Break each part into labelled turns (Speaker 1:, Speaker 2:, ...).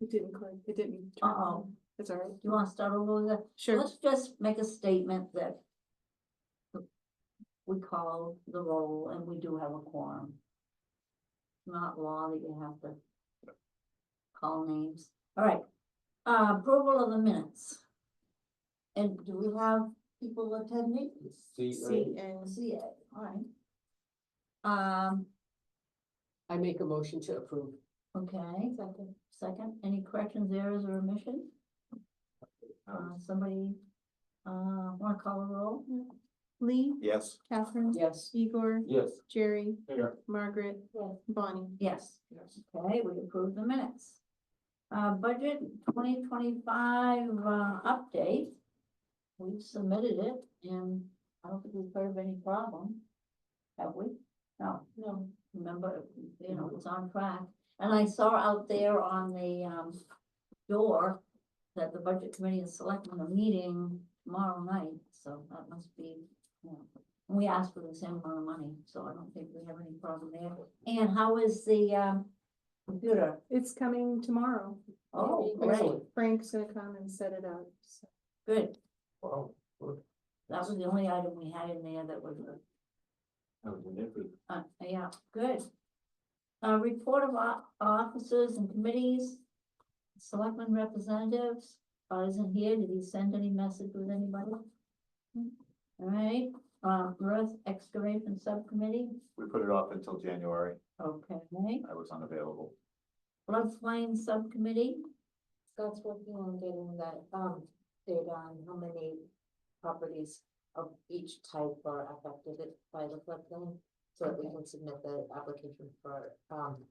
Speaker 1: It didn't click, it didn't turn
Speaker 2: Uh-oh,
Speaker 1: on. It's all right.
Speaker 2: you wanna start over with that?
Speaker 1: Sure,
Speaker 2: Let's just make a statement that we call the roll and we do have a quorum. It's Not law that you have to call names. All right, uh, approval of the minutes. And do we have people attending?
Speaker 3: C
Speaker 1: C
Speaker 3: A,
Speaker 1: and
Speaker 2: CA, all right. Um,
Speaker 4: I make a motion to approve.
Speaker 2: okay, second, second, any corrections, errors, or omissions? Uh, somebody, uh, wanna call a roll?
Speaker 1: Lee,
Speaker 3: yes.
Speaker 1: Catherine,
Speaker 4: Yes.
Speaker 1: Igor,
Speaker 3: Yes.
Speaker 1: Jerry,
Speaker 3: Here.
Speaker 1: Margaret,
Speaker 2: Yes.
Speaker 1: Bonnie.
Speaker 2: Yes.
Speaker 3: Yes.
Speaker 2: Okay, we approve the minutes. Uh, budget twenty twenty-five, uh, update. We've submitted it and I don't think we've heard of any problem. Have we? No. No. Remember, you know, it's on track. And I saw out there on the, um, door that the budget committee and selectmen are meeting tomorrow night, so that must be, you know. We asked for the same amount of money, so I don't think we have any problem there. And how is the, um, computer?
Speaker 1: It's coming tomorrow.
Speaker 2: Oh, great,
Speaker 4: Excellent.
Speaker 1: Frank's gonna come and set it up. so.
Speaker 2: good.
Speaker 3: Wow. good.
Speaker 2: That was the only item we had in there that was,
Speaker 3: That was an effort.
Speaker 2: uh, yeah, good. Uh, report of o- officers and committees, selectmen representatives, uh, isn't here, did he send any message with anybody? Alright, uh, earth excavation subcommittee,
Speaker 3: We put it off until January.
Speaker 2: okay,
Speaker 3: I was unavailable.
Speaker 2: floodplain subcommittee,
Speaker 5: Scott's working on getting that, um, data on how many properties of each type are affected by the floodplain. So that we can submit the application for, um,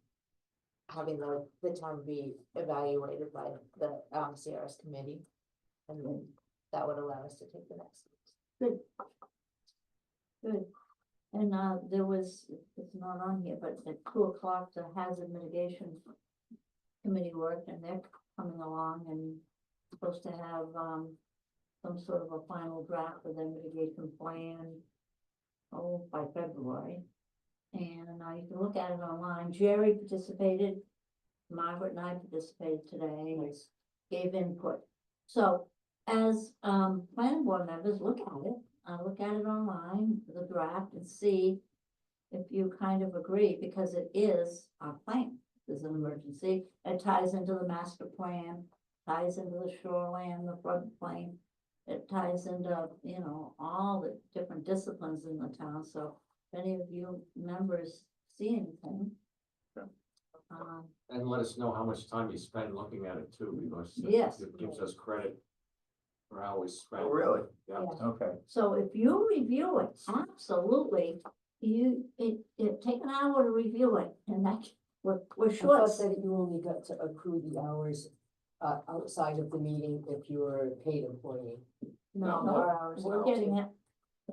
Speaker 5: having the, the town be evaluated by the, um, CRS committee. And then that would allow us to take the next. steps.
Speaker 2: Good. And uh, there was, it's not on here, but at two o'clock, the hazard mitigation committee worked and they're coming along and supposed to have um. Some sort of a final draft of their mitigation plan. Oh, by February. And uh, you can look at it online. Jerry participated. Margaret and I participated today. Gave input. So as um planning board members, look at it uh, look at it online, the draft, and see if you kind of agree, because it is our plan, there's an emergency, it ties into the master plan, ties into the shoreline, the floodplain, it ties into, you know, all the different disciplines in the town, so if any of you members see anything.
Speaker 3: Sure.
Speaker 2: Um,
Speaker 6: And let us know how much time you spend looking at it too, because it-
Speaker 2: Yes.
Speaker 6: it gives us credit for how we spent.
Speaker 3: Oh, really?
Speaker 6: Yeah,
Speaker 3: Okay.
Speaker 2: So if you review it, absolutely, you, it, it take an hour to review it, and that, we're, we're
Speaker 5: I thought
Speaker 2: short.
Speaker 5: that you only got to accrue the hours uh outside of the meeting if you were a paid employee.
Speaker 2: No,
Speaker 5: Not our hours.
Speaker 2: We're getting it,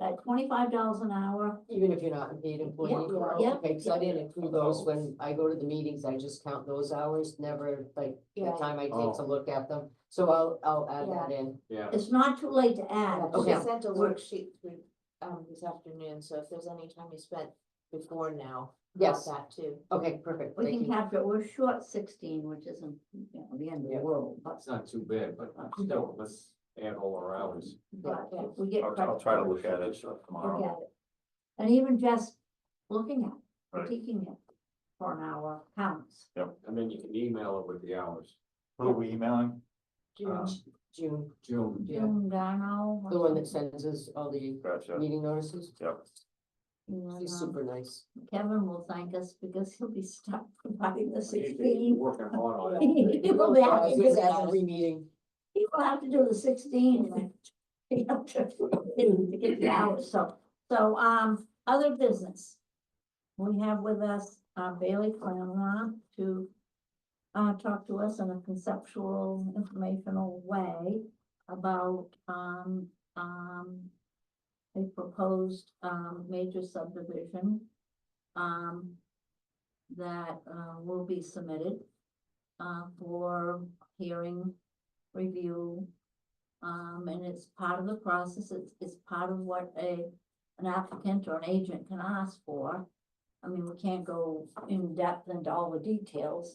Speaker 2: at twenty-five dollars an hour,
Speaker 5: Even if you're not a paid employee.
Speaker 2: Yeah,
Speaker 5: you are,
Speaker 2: yeah,
Speaker 5: Okay, cause
Speaker 2: yeah.
Speaker 5: I didn't include those
Speaker 3: Oh.
Speaker 5: when I go to the meetings, I just count those hours, never like the
Speaker 4: Yeah.
Speaker 5: time I
Speaker 6: Oh.
Speaker 5: take to look at them. So I'll, I'll add that in.
Speaker 6: yeah.
Speaker 2: it's not too late to add.
Speaker 5: Okay.
Speaker 7: She sent a
Speaker 2: We're-
Speaker 7: worksheet through, um, this afternoon, so if there's any time you spent before now. add
Speaker 5: Yes,
Speaker 7: That too.
Speaker 5: okay, perfect,
Speaker 2: We
Speaker 5: thank
Speaker 2: can
Speaker 5: you.
Speaker 2: capture, it. we're short sixteen, which isn't, you know, the end of the
Speaker 5: Yeah.
Speaker 2: world, but,
Speaker 6: It's not too bad, but still, let's add all our hours.
Speaker 2: but
Speaker 7: yeah.
Speaker 2: we get.
Speaker 3: I'll,
Speaker 2: credit
Speaker 3: I'll try to
Speaker 2: for
Speaker 3: look at it
Speaker 2: Look
Speaker 3: tomorrow.
Speaker 2: at it. And even just looking at,
Speaker 3: Right.
Speaker 2: it, critiquing it for an hour counts.
Speaker 6: And then you can email it with the hours.
Speaker 3: Who are we emailing?
Speaker 5: June,
Speaker 6: Um,
Speaker 5: June,
Speaker 6: June,
Speaker 5: Yeah.
Speaker 2: June Darnall.
Speaker 5: the one that sends us all the
Speaker 3: Gotcha.
Speaker 5: meeting notices,
Speaker 3: Yep.
Speaker 5: he's super nice.
Speaker 2: Kevin will thank us because he'll be stuck providing the
Speaker 6: You're
Speaker 2: sixteen.
Speaker 6: Working hard on it.
Speaker 2: He will be
Speaker 5: Yeah,
Speaker 2: happy
Speaker 5: he
Speaker 2: to
Speaker 5: does
Speaker 2: do that.
Speaker 5: that Every meeting.
Speaker 2: He will have to do the sixteen. He have to to get the hours, so, so, um, other business. We have with us uh, Bailey Clamon to uh, talk to us in a conceptual, informational way about, um, um, a proposed, um, major subdivision, um, that, uh, will be submitted, uh, for hearing, review. Um, and it's part of the process, it's, it's part of what a, an applicant or an agent can ask for. I mean, we can't go in depth into all the details,